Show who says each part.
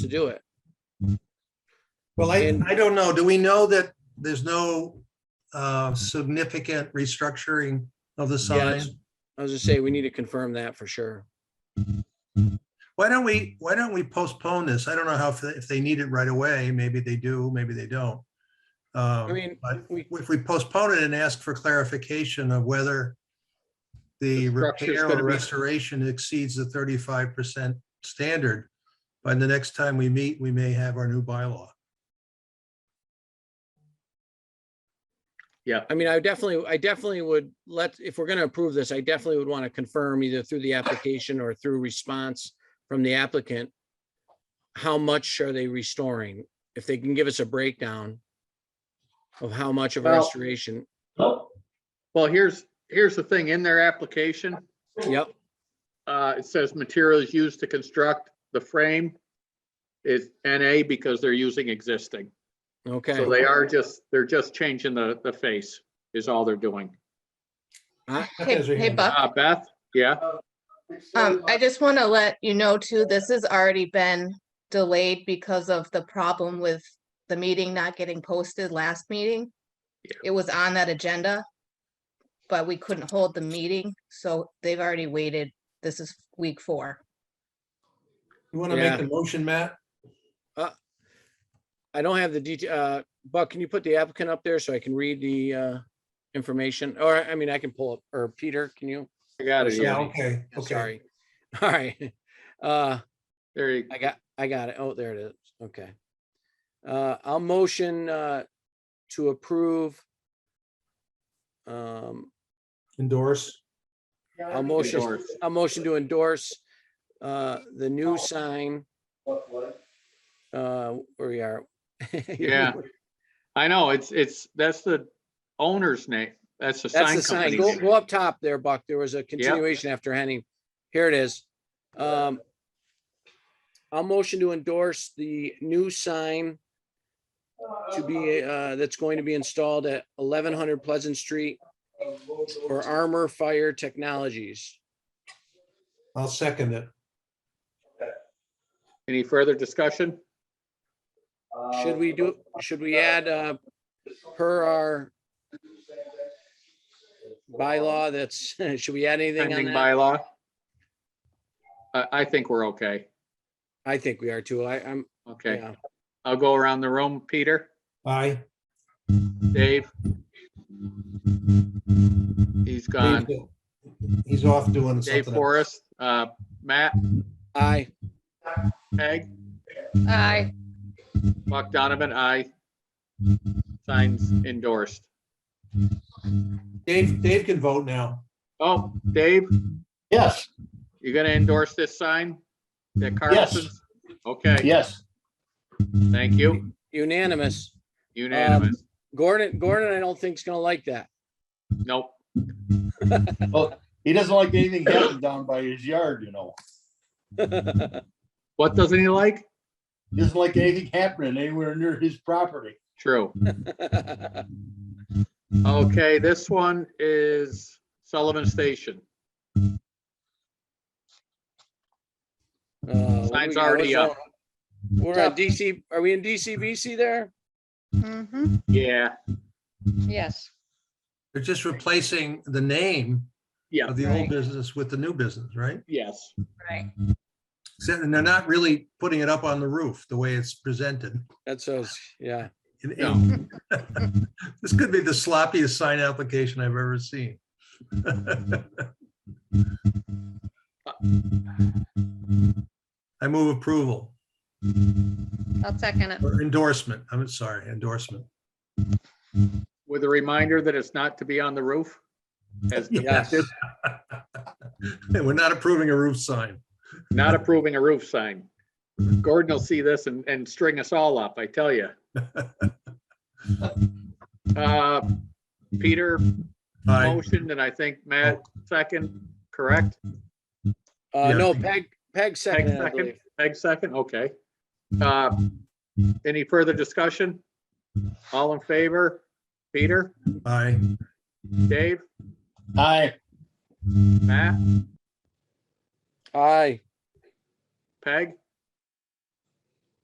Speaker 1: do it.
Speaker 2: Well, I,
Speaker 1: And-
Speaker 2: I don't know. Do we know that there's no uh, significant restructuring of the sign?
Speaker 1: Yes. I was just saying, we need to confirm that for sure.
Speaker 2: Why don't we, why don't we postpone this? I don't know how, if they- if they need it right away, maybe they do, maybe they don't. Um,
Speaker 1: I mean, we,
Speaker 2: If we postpone it and ask for clarification of whether the
Speaker 1: The structure's
Speaker 2: repair
Speaker 1: gonna
Speaker 2: or
Speaker 1: be-
Speaker 2: restoration exceeds the thirty-five percent standard, by the next time we meet, we may have our new bylaw.
Speaker 1: I mean, I definitely, I definitely would let, if we're gonna approve this, I definitely would want to confirm either through the application or through response from the applicant. How much are they restoring? If they can give us a breakdown of how much of
Speaker 3: Well-
Speaker 1: restoration.
Speaker 3: Well, here's, here's the thing, in their application,
Speaker 1: Yep,
Speaker 3: uh, it says materials used to construct the frame is NA because they're using existing.
Speaker 1: okay.
Speaker 3: So they are just, they're just changing the, the face is all they're doing.
Speaker 4: Hey, hey, Buck,
Speaker 3: Uh, Beth, yeah,
Speaker 4: um, I just want to let you know too, this has already been delayed because of the problem with the meeting not getting posted last meeting.
Speaker 3: Yeah.
Speaker 4: It was on that agenda, but we couldn't hold the meeting, so they've already waited. This is week four.
Speaker 2: You want to
Speaker 1: Yeah.
Speaker 2: make the motion, Matt?
Speaker 1: I don't have the detail, uh, Buck, can you put the applicant up there so I can read the, uh, information? Or, I mean, I can pull up, or Peter, can you?
Speaker 3: I got it.
Speaker 2: Yeah,
Speaker 3: Andy.
Speaker 2: okay, okay.
Speaker 1: Sorry. All right. Uh,
Speaker 3: There you,
Speaker 1: I got, I got it. Oh, there it is. Okay. Uh, I'll motion, uh, to approve. Um,
Speaker 2: Endorse.
Speaker 1: I'll motion,
Speaker 3: Endorse.
Speaker 1: I'll motion to endorse, uh, the new sign. Uh, where we are.
Speaker 3: Yeah. I know, it's, it's, that's the owner's name, that's the
Speaker 1: That's
Speaker 3: sign
Speaker 1: the sign.
Speaker 3: company.
Speaker 1: Go, go up top there, Buck. There was a continuation after Henning. Here it is. Um, I'll motion to endorse the new sign to be, uh, that's going to be installed at eleven hundred Pleasant Street for Armor Fire Technologies.
Speaker 2: I'll second it.
Speaker 3: Any further discussion?
Speaker 1: Should we do, should we add, uh, per our bylaw that's, should we add anything on
Speaker 3: Pending
Speaker 1: that?
Speaker 3: bylaw? I, I think we're okay.
Speaker 1: I think we are too. I, I'm,
Speaker 3: Okay,
Speaker 1: yeah.
Speaker 3: I'll go around the room. Peter,
Speaker 2: Aye.
Speaker 3: Dave? He's gone.
Speaker 2: He's off doing
Speaker 3: Dave
Speaker 2: something. else.
Speaker 3: Forrest, uh, Matt,
Speaker 1: Aye.
Speaker 3: Peg,
Speaker 4: Aye.
Speaker 3: Buck Donovan, I. Signs endorsed.
Speaker 2: Dave, Dave can vote now.
Speaker 3: Oh, Dave,
Speaker 5: Yes,
Speaker 3: you gonna endorse this sign? That Carlson's? Okay,
Speaker 5: yes.
Speaker 3: thank you.
Speaker 1: Unanimous.
Speaker 3: Unanimous.
Speaker 1: Gordon, Gordon, I don't think is gonna like that.
Speaker 3: Nope.
Speaker 5: He doesn't like anything happening down by his yard, you know.
Speaker 3: What doesn't he like?
Speaker 5: He Doesn't like anything happening anywhere near his property.
Speaker 3: True.
Speaker 1: I'll
Speaker 3: Okay, this one is Sullivan Station. Sign's already up.
Speaker 1: We're on DC, are we in DCBC there?
Speaker 4: Mm-hmm,
Speaker 3: Yeah,
Speaker 4: yes.
Speaker 2: They're just replacing the name
Speaker 3: yeah,
Speaker 2: of the old
Speaker 4: Right.
Speaker 2: business with the new business, right?
Speaker 3: yes.
Speaker 4: Right.
Speaker 2: So- And they're not really putting it up on the roof the way it's presented.
Speaker 1: That's us, yeah.
Speaker 2: in
Speaker 3: No.
Speaker 2: ink. This could be the sloppiest sign application I've ever seen. I move approval
Speaker 4: I'll second it.
Speaker 2: or endorsement. I'm sorry, endorsement.
Speaker 3: With a reminder that it's not to be on the roof. As
Speaker 1: Yes.
Speaker 2: We're not approving a roof sign.
Speaker 3: not approving a roof sign. Gordon will see this and, and string us all up, I tell you. Uh, Peter
Speaker 2: Aye.
Speaker 3: motioned, and I think Matt second, correct?
Speaker 1: Uh,
Speaker 2: Yeah.
Speaker 1: no, Peg, Peg
Speaker 3: Peg
Speaker 1: second, I
Speaker 3: second,
Speaker 1: believe.
Speaker 3: Peg second, okay. Uh, Any further discussion? All in favor? Peter,
Speaker 2: Aye.
Speaker 3: Dave,
Speaker 5: Aye,
Speaker 3: Matt,
Speaker 1: Aye,
Speaker 3: Peg,